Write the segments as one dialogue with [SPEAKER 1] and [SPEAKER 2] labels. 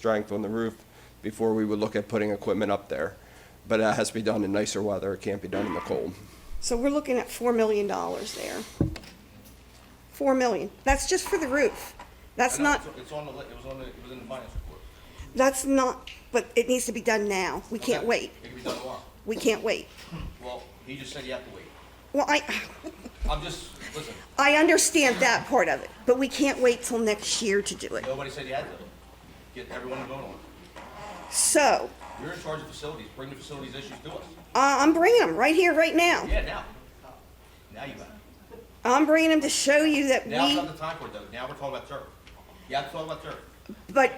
[SPEAKER 1] strength on the roof before we would look at putting equipment up there. But that has to be done in nicer weather. It can't be done in the cold.
[SPEAKER 2] So we're looking at four million dollars there. Four million. That's just for the roof. That's
[SPEAKER 3] No,
[SPEAKER 2] not,
[SPEAKER 3] It's on the, li- it was on the, it was in the finance report.
[SPEAKER 2] that's not, but it needs to be done now. We can't
[SPEAKER 3] Okay.
[SPEAKER 2] wait.
[SPEAKER 3] It can be done tomorrow.
[SPEAKER 2] We can't wait.
[SPEAKER 3] Well, he just said you have to wait.
[SPEAKER 2] Well, I,
[SPEAKER 3] I'm just, listen,
[SPEAKER 2] I understand that part of it, but we can't wait till next year to do it.
[SPEAKER 3] nobody said you had to. Get everyone to vote on it.
[SPEAKER 2] So,
[SPEAKER 3] You're in charge of facilities, bring the facilities issues to us.
[SPEAKER 2] uh, I'm bringing them right here, right now.
[SPEAKER 3] Yeah, now. Now you got it.
[SPEAKER 2] I'm bringing them to show you that
[SPEAKER 3] Now's
[SPEAKER 2] we,
[SPEAKER 3] not the time for it though, now we're talking about turf. You have to talk about turf.
[SPEAKER 2] but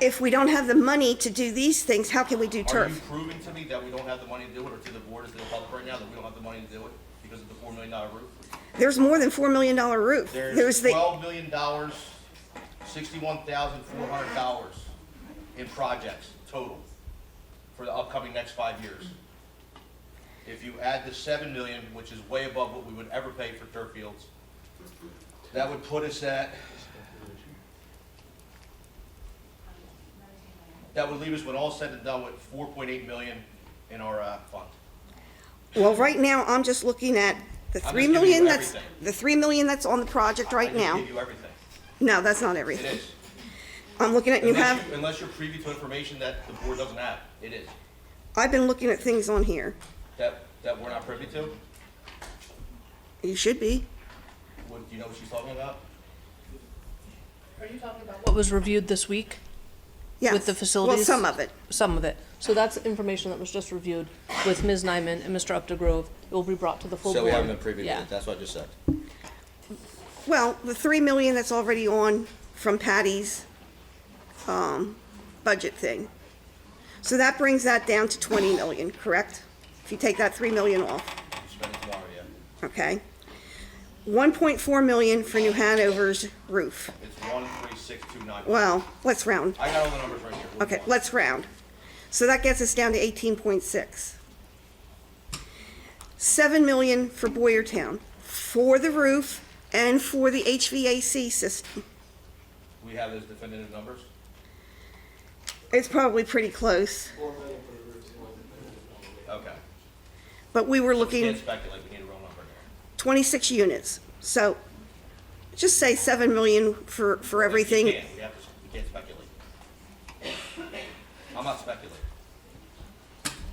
[SPEAKER 2] if we don't have the money to do these things, how can we do
[SPEAKER 3] Are you
[SPEAKER 2] turf?
[SPEAKER 3] proving to me that we don't have the money to do it, or to the board, is to the public right now, that we don't have the money to do it because of the four million dollar roof?
[SPEAKER 2] There's more than four million dollar roof.
[SPEAKER 3] There's
[SPEAKER 2] There's the,
[SPEAKER 3] twelve million dollars, sixty-one thousand four hundred dollars in projects total for the upcoming next five years. If you add the seven million, which is way above what we would ever pay for turf fields, that would put us at, that would leave us, when all said and done, with four point eight million in our, uh, fund.
[SPEAKER 2] well, right now, I'm just looking at the
[SPEAKER 3] just
[SPEAKER 2] three
[SPEAKER 3] giving
[SPEAKER 2] million
[SPEAKER 3] you
[SPEAKER 2] that's,
[SPEAKER 3] everything.
[SPEAKER 2] the three million that's on the project
[SPEAKER 3] I
[SPEAKER 2] right
[SPEAKER 3] just
[SPEAKER 2] now.
[SPEAKER 3] gave you everything.
[SPEAKER 2] No, that's not
[SPEAKER 3] It
[SPEAKER 2] everything.
[SPEAKER 3] is.
[SPEAKER 2] I'm looking at, you
[SPEAKER 3] Unless
[SPEAKER 2] have,
[SPEAKER 3] you- Unless you're privy to information that the board doesn't have, it is,
[SPEAKER 2] I've been looking at things on here.
[SPEAKER 3] that, that we're not privy to,
[SPEAKER 2] You should be.
[SPEAKER 3] what, do you know what she's talking about?
[SPEAKER 4] Are you talking about what was reviewed this week?
[SPEAKER 2] Yes.
[SPEAKER 4] With the
[SPEAKER 2] Well,
[SPEAKER 4] facilities?
[SPEAKER 2] some of it.
[SPEAKER 4] Some of it. So that's information that was just reviewed with Ms. Nyman and Mr. Updegrove. It will be brought to the full board. Yeah.
[SPEAKER 3] that's what I just said.
[SPEAKER 2] Well, the three million that's already on from Patty's, um, budget thing. So that brings that down to twenty million, correct? If you take that three million off,
[SPEAKER 3] Spend it tomorrow, yeah,
[SPEAKER 2] okay? One point four million for New Hanover's roof.
[SPEAKER 3] it's one, three, six, two, nine.
[SPEAKER 2] Well, let's round.
[SPEAKER 3] I got all the numbers right here. What do
[SPEAKER 2] Okay,
[SPEAKER 3] you want?
[SPEAKER 2] let's round. So that gets us down to eighteen point six. Seven million for Boyertown, for the roof and for the HVAC system.
[SPEAKER 3] We have those definitive numbers,
[SPEAKER 2] It's probably pretty close,
[SPEAKER 3] okay.
[SPEAKER 2] but we were
[SPEAKER 3] We
[SPEAKER 2] looking
[SPEAKER 3] Can't speculate, we need a real number there.
[SPEAKER 2] twenty-six units. So just say seven million for, for
[SPEAKER 3] We
[SPEAKER 2] everything.
[SPEAKER 3] can't, we have to, we can't speculate. I'm not speculating.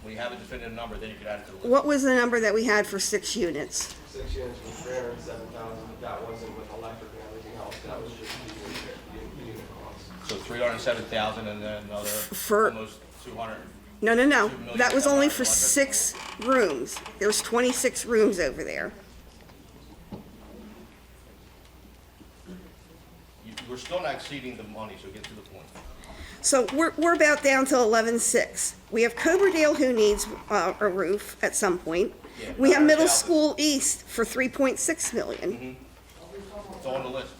[SPEAKER 3] When you have a definitive number, then you can add it to the list.
[SPEAKER 2] What was the number that we had for six units?
[SPEAKER 5] six units was three hundred and seven thousand, but that wasn't with electric and everything else, that was just the unit, the unit cost.
[SPEAKER 3] So three hundred and seven thousand and then another,
[SPEAKER 2] For-
[SPEAKER 3] almost two hundred.
[SPEAKER 2] No, no, no.
[SPEAKER 3] Two million
[SPEAKER 2] That was only for
[SPEAKER 3] dollars.
[SPEAKER 2] six rooms. There's 26 rooms over there.
[SPEAKER 3] You, we're still not exceeding the money, so get to the point.
[SPEAKER 2] So we're, we're about down to eleven-six. We have Coverdale who needs, uh, a roof at some point.
[SPEAKER 3] Yeah,
[SPEAKER 2] We have Middle
[SPEAKER 3] 900,000.
[SPEAKER 2] School East for three point six
[SPEAKER 3] Mm-hmm.
[SPEAKER 2] million.
[SPEAKER 3] It's on the list.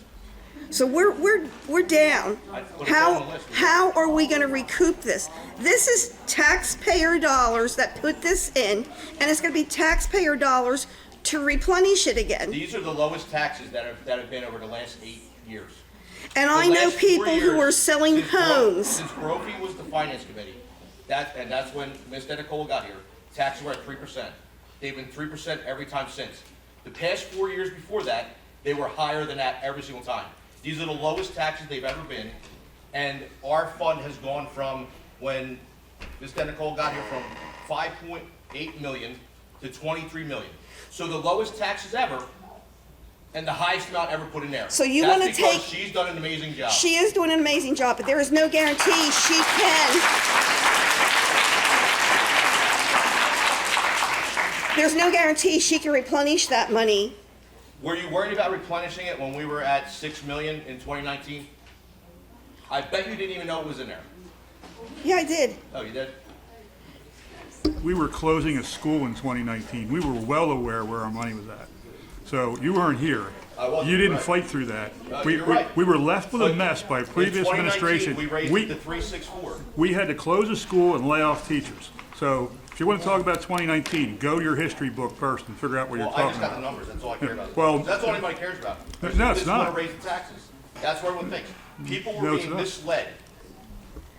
[SPEAKER 2] So we're, we're, we're down.
[SPEAKER 3] I put it on the
[SPEAKER 2] How,
[SPEAKER 3] list.
[SPEAKER 2] how are we gonna recoup this? This is taxpayer dollars that put this in, and it's gonna be taxpayer dollars to replenish it again.
[SPEAKER 3] These are the lowest taxes that have, that have been over the last eight years.
[SPEAKER 2] And
[SPEAKER 3] The
[SPEAKER 2] I know
[SPEAKER 3] last four
[SPEAKER 2] people who
[SPEAKER 3] years,
[SPEAKER 2] are selling
[SPEAKER 3] since Bro-
[SPEAKER 2] homes.
[SPEAKER 3] Since Brophy was the finance committee, that, and that's when Ms. Denicola got here, taxes were at three percent. They've been three percent every time since. The past four years before that, they were higher than that every single time. These are the lowest taxes they've ever been, and our fund has gone from, when Ms. Denicola got here, from five point eight million to twenty-three million. So the lowest taxes ever, and the highest amount ever put in there.
[SPEAKER 2] So you
[SPEAKER 3] That's
[SPEAKER 2] wanna
[SPEAKER 3] because
[SPEAKER 2] take-
[SPEAKER 3] She's done an amazing job.
[SPEAKER 2] She is doing an amazing job, but there is no guarantee she can. There's no guarantee she can replenish that money.
[SPEAKER 3] Were you worried about replenishing it when we were at six million in twenty nineteen? I bet you didn't even know it was in there.
[SPEAKER 2] Yeah, I did.
[SPEAKER 3] Oh, you did?
[SPEAKER 6] we were closing a school in 2019. We were well aware where our money was at. So you weren't here.
[SPEAKER 3] I wasn't,
[SPEAKER 6] You didn't
[SPEAKER 3] right.
[SPEAKER 6] fight through that.
[SPEAKER 3] Uh,
[SPEAKER 6] We,
[SPEAKER 3] you're
[SPEAKER 6] we-
[SPEAKER 3] right.
[SPEAKER 6] we were left with a
[SPEAKER 3] But
[SPEAKER 6] mess by
[SPEAKER 3] in
[SPEAKER 6] previous
[SPEAKER 3] 2019,
[SPEAKER 6] administration.
[SPEAKER 3] We raised it to three six four.
[SPEAKER 6] We had to close a school and lay off teachers. So if you want to talk about 2019, go to your history book first and figure out what you're
[SPEAKER 3] Well, I
[SPEAKER 6] talking
[SPEAKER 3] just got the
[SPEAKER 6] about.
[SPEAKER 3] numbers, that's all I care about.
[SPEAKER 6] Well-
[SPEAKER 3] That's all anybody cares about.
[SPEAKER 6] No, it's
[SPEAKER 3] They just wanna
[SPEAKER 6] not.
[SPEAKER 3] raise the taxes. That's what everyone thinks. People
[SPEAKER 6] No,
[SPEAKER 3] were
[SPEAKER 6] it's
[SPEAKER 3] being
[SPEAKER 6] not.
[SPEAKER 3] misled